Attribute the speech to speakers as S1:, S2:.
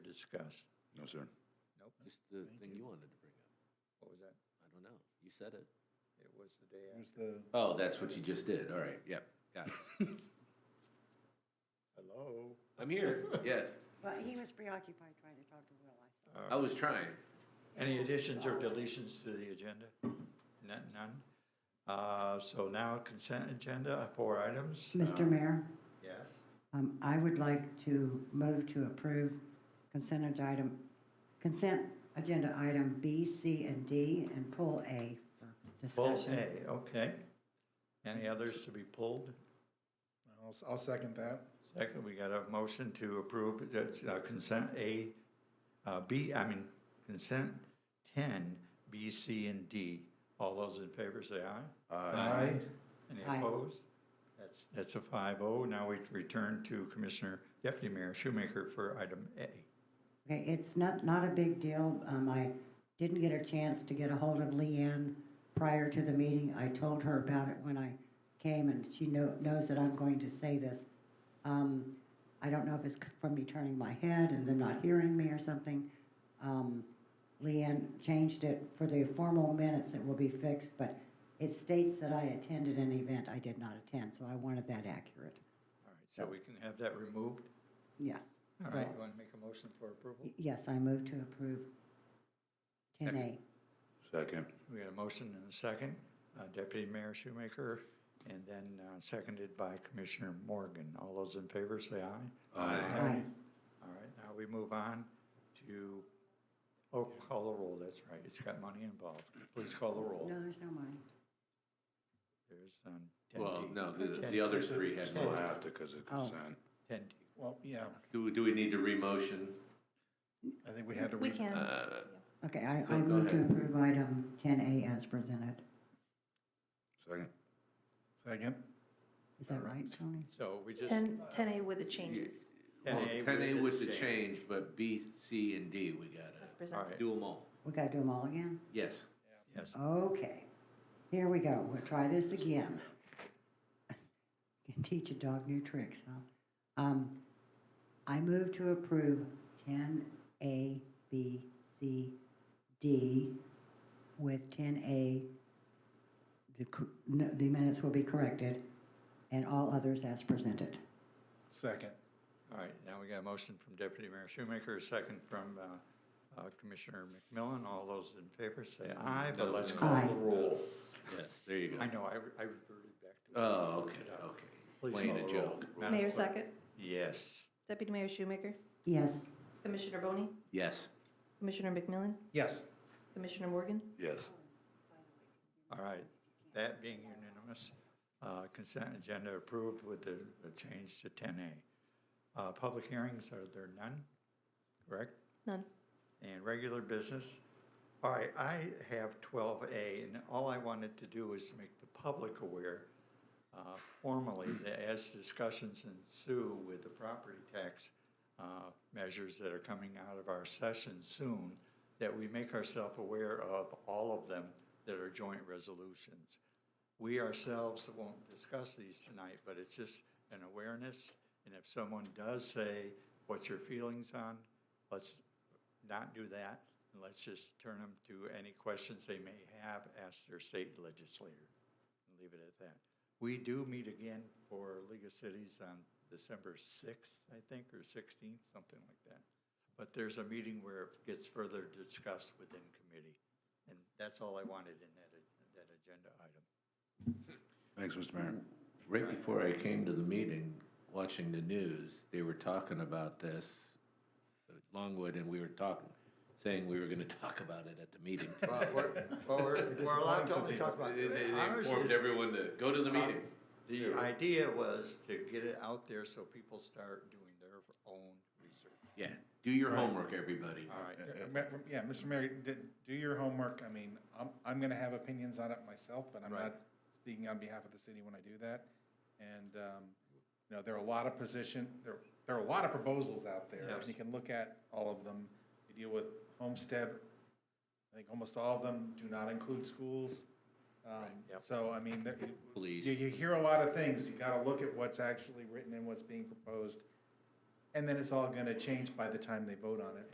S1: discuss.
S2: No, sir.
S1: Nope.
S3: Just the thing you wanted to bring up.
S1: What was that?
S3: I don't know. You said it.
S1: It was the day
S4: There's
S1: after.
S4: the,
S3: Oh, that's what you just did. All right. Yep. Got it.
S1: Hello?
S3: I'm here. Yes.
S5: Well, he was preoccupied trying to talk to Will, I saw.
S3: Uh, I was trying.
S1: Any additions or deletions to the agenda? None, none? Uh, so now consent agenda, four items?
S5: Mr. Mayor,
S1: Yes.
S5: um, I would like to move to approve consent ag- item, consent agenda item B, C, and D, and pull A for
S1: Pull
S5: discussion.
S1: A, okay. Any others to be pulled?
S4: I'll, I'll second that.
S1: Second, we got a motion to approve the, uh, consent A, uh, B, I mean, consent ten, B, C, and D. All those in favor say aye. Aye. Any
S5: Aye.
S1: opposed? That's, that's a five oh. Now we return to Commissioner Deputy Mayor Shoemaker for item A.
S5: Okay, it's not, not a big deal. Um, I didn't get a chance to get a hold of Leanne prior to the meeting. I told her about it when I came, and she know, knows that I'm going to say this. Um, I don't know if it's from me turning my head and them not hearing me or something. Um, Leanne changed it for the formal minutes that will be fixed, but it states that I attended an event I did not attend, so I wanted that accurate.
S1: All right, so we can have that removed.
S5: Yes.
S1: All right,
S5: So-
S1: you want to make a motion for approval?
S5: Y- Yes, I move to approve 10A.
S2: Second.
S1: We got a motion and a second. Uh, Deputy Mayor Shoemaker, and then uh, seconded by Commissioner Morgan. All those in favor say aye.
S5: Aye.
S1: All right, now we move on to, oh, call the roll, that's right, it's got money involved. Please call the roll.
S5: No, there's no money.
S1: There's um, 10D.
S3: Well, no, the, the other three had.
S2: Still have to because of consent.
S1: 10D.
S4: Well, yeah,
S3: Do, we- do we need to remotion? Uh,
S4: I think we had to.
S6: We
S4: re-
S1: uh,
S6: can.
S5: Okay, I,
S3: Go-
S5: I
S3: Oh, go
S5: move to
S3: ahead.
S5: approve item 10A as presented.
S2: Second.
S4: Second.
S5: Is that right, Tony?
S1: So we just,
S6: 10, 10A with the changes
S3: Well,
S1: 10A
S3: ten A was
S1: with
S3: the
S1: the
S3: change, but B, C, and D, we
S6: as
S3: gotta
S1: All right.
S6: presented.
S3: do them all.
S5: We gotta do them all again?
S3: Yes.
S1: yes,
S5: Okay, here we go, we'll try this again. Can teach a dog new tricks, huh? Um, I move to approve ten A, B, C, D with ten A, the, cor- no, the minutes will be corrected, and all others as presented.
S4: Second.
S1: all right, now we got a motion from Deputy Mayor Shoemaker, a second from uh, uh, Commissioner McMillan. All those in favor say aye, but let's call the
S5: Aye.
S1: roll.
S3: Yes, there you
S1: I
S3: go.
S1: know, I re- I reverted back to.
S3: Oh, okay, okay.
S1: Please
S3: Playing
S1: call
S3: a
S1: the roll.
S3: joke.
S1: Madam
S6: Mayor
S1: Clerk.
S6: Sackett,
S1: Yes.
S6: Deputy Mayor Shoemaker,
S5: Yes,
S6: Commissioner Boney,
S3: Yes.
S6: Commissioner McMillan,
S4: Yes.
S6: Commissioner Morgan,
S2: Yes.
S1: All right, that being unanimous, uh, consent agenda approved with the the change to 10A. Uh, Public hearings, are there none? Correct?
S6: none.
S1: And regular business? All right, I have 12A, and all I wanted to do is make the public aware uh, formally that as discussions ensue with the property tax uh, measures that are coming out of our session soon, that we make ourselves aware of all of them that are joint resolutions. We ourselves won't discuss these tonight, but it's just an awareness. And if someone does say, what's your feelings on, let's not do that. And let's just turn them to any questions they may have, ask their state legislator and leave it at that. We do meet again for League of Cities on December 6th, I think, or 16th, something like that. But there's a meeting where it gets further discussed within committee. And that's all I wanted in that, that agenda item.
S2: Thanks, Mr. Mayor.
S3: Right before I came to the meeting, watching the news, they were talking about this, uh, Longwood, and we were talking, saying we were gonna talk about it at the meeting.
S1: Well, we're, well, we're- we're allowed to only talk about.
S3: They, they- they
S1: Ours
S3: informed
S1: is-
S3: everyone to go to the meeting.
S1: The idea was to get it out there so people start doing their own research.
S3: Yeah, do your homework, everybody.
S1: All right,
S4: Uh, Yeah, Mr. Mayor, d- do your homework. I mean, I'm, I'm going to have opinions on it myself, but I'm
S1: Right.
S4: not speaking on behalf of the city when I do that. And, um, you know, there are a lot of position, there, there are a lot of proposals out there.
S1: Yes.
S4: and You can look at all of them. You deal with homestead. I think almost all of them do not include schools. Um,
S1: yep.
S4: So, I mean, there, you-
S3: Police.
S4: You, you hear a lot of things. You got to look at what's actually written and what's being proposed. And then it's all gonna change by the time they vote on it.